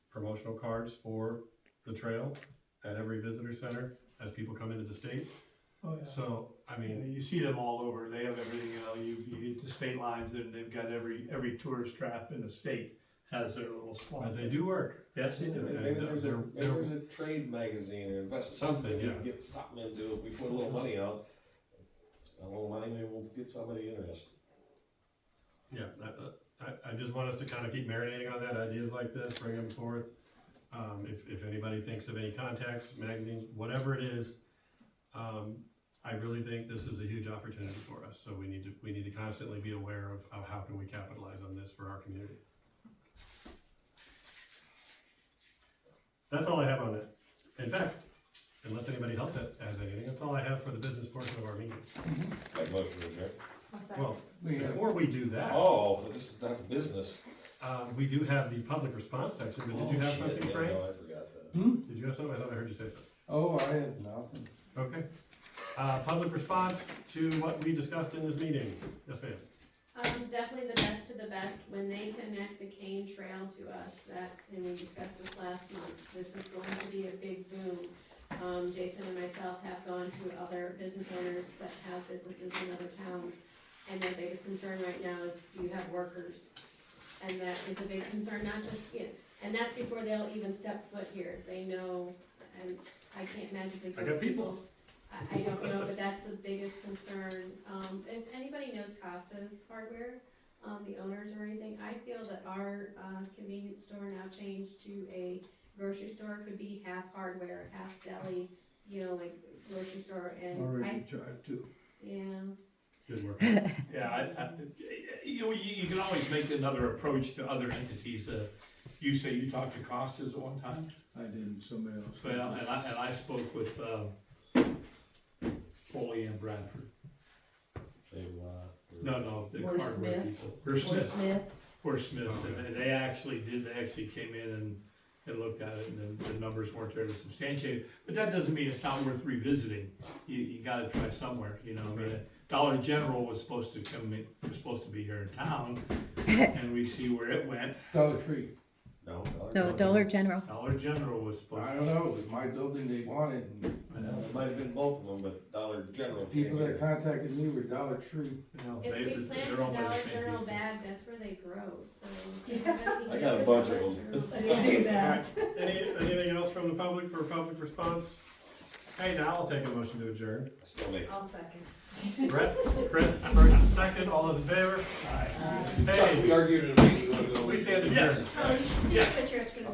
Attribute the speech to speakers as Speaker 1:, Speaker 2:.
Speaker 1: promotional cards for the trail at every visitor center as people come into the state.
Speaker 2: Oh, yeah.
Speaker 1: So, I
Speaker 2: You know,
Speaker 1: mean,
Speaker 2: You see them all over, they have everything, you know, you, you hit the state lines and they've got every, every tourist trap in the state has their little
Speaker 1: but
Speaker 2: spot.
Speaker 1: they do work.
Speaker 2: Yes, they do.
Speaker 1: Yeah.
Speaker 3: Maybe there's a,
Speaker 1: They're-
Speaker 3: maybe there's a trade magazine or invest something, you can get something into it, we put a little money out. Spend a little money, maybe we'll get somebody interested.
Speaker 1: Yeah, I, I, I just want us to kind of keep marinating on that, ideas like this, bring them forth. Um, if, if anybody thinks of any contacts, magazines, whatever it is, um, I really think this is a huge opportunity for us, so we need to, we need to constantly be aware of, of how can we capitalize on this for our community. That's all I have on it. In fact, unless anybody else has has anything, that's all I have for the business portion of our meeting.
Speaker 3: Like motion, okay?
Speaker 1: Well, before we do that.
Speaker 3: Oh, this is not the business.
Speaker 1: Uh, we do have the public response section, but did you
Speaker 3: Oh,
Speaker 1: have
Speaker 3: shit,
Speaker 1: something,
Speaker 3: yeah,
Speaker 1: Frank?
Speaker 3: No, I forgot that.
Speaker 1: Did you have something? I thought I heard you say something.
Speaker 4: Oh, I have nothing.
Speaker 1: Okay. Uh, public response to what we discussed in this meeting. Yes, ma'am.
Speaker 5: Um, definitely the best of the best, when they connect the cane trail to us, that, and we discussed this last month, this is going to be a big boom. Um, Jason and myself have gone to other business owners that have businesses in other towns, and their biggest concern right now is, do you have workers? And that is a big concern, not just, yeah, and that's before they'll even step foot here, they know, and I can't magically.
Speaker 1: I got people.
Speaker 5: I, I don't know, but that's the biggest concern. Um, if anybody knows Costa's hardware, um, the owners or anything, I feel that our, uh, convenience store now changed to a grocery store, could be half hardware, half deli, you know, like grocery store and I,
Speaker 4: Already tried to.
Speaker 5: yeah.
Speaker 1: Good work.
Speaker 2: Yeah, I, I, you, know, you, you can always make another approach to other entities, uh, you say you talked to Costas at one time?
Speaker 4: I didn't, somebody else.
Speaker 2: Well, and I, and I spoke with, uh, Foley and Bradford,
Speaker 3: They, uh,
Speaker 2: no, no, the
Speaker 6: Or
Speaker 2: hardware
Speaker 6: Smith.
Speaker 2: people. Or Smith.
Speaker 6: Smith.
Speaker 2: Or Smith, and they, they actually did, they actually came in and, and looked at it, and the, the numbers weren't there to substantiate. But that doesn't mean it's not worth revisiting, you, you gotta try somewhere, you know, I mean, Dollar General was supposed to come, in- was supposed to be here in town, and we see where it went,
Speaker 4: Dollar Tree.
Speaker 3: No,
Speaker 7: No, Dollar General.
Speaker 2: Dollar General was
Speaker 4: I
Speaker 2: supposed.
Speaker 4: don't know, it was my building they wanted. and
Speaker 2: I know.
Speaker 3: It might have been both of them, but Dollar General. came
Speaker 4: People that
Speaker 3: here.
Speaker 4: contacted me were Dollar Tree.
Speaker 2: You know,
Speaker 5: If
Speaker 2: they-
Speaker 5: we
Speaker 2: they're
Speaker 5: plant a
Speaker 2: owned by the
Speaker 5: Dollar
Speaker 2: same
Speaker 5: General
Speaker 2: people.
Speaker 5: bag, that's where they grow, so.
Speaker 3: I got a bunch of
Speaker 6: Let's do that.
Speaker 1: Any, anything else from the public for public response? Hey, now I'll take a motion to adjourn.
Speaker 3: I Still make.
Speaker 6: I'll second.
Speaker 1: Brett, Chris, first and second, all those in favor?
Speaker 2: Aye.
Speaker 3: Chuck,
Speaker 1: Hey,
Speaker 3: we argued in a meeting, you wanna go?
Speaker 1: we stand adjourned.
Speaker 2: Yes.
Speaker 6: Oh, you should see
Speaker 2: Yeah.
Speaker 6: the picture, it's gonna be